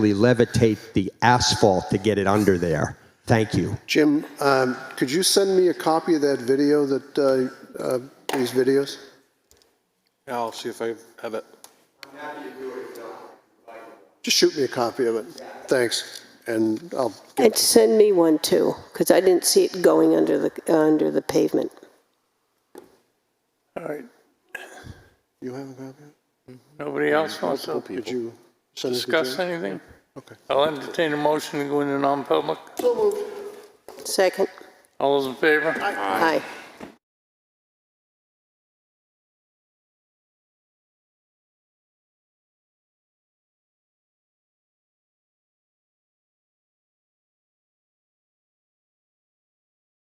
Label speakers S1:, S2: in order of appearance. S1: levitate the asphalt to get it under there. Thank you.
S2: Jim, um, could you send me a copy of that video that, uh, uh, these videos?
S3: I'll see if I have it.
S2: Just shoot me a copy of it. Thanks. And I'll,
S4: And send me one too, because I didn't see it going under the, under the pavement.
S5: All right,
S2: you have a copy? of it?
S5: nobody else wants to
S2: Did you send it to
S5: discuss
S2: Jim?
S5: anything?
S2: Okay.
S5: I'll entertain a motion to go into non-public.
S4: Second?
S5: All those in favor?
S4: Aye.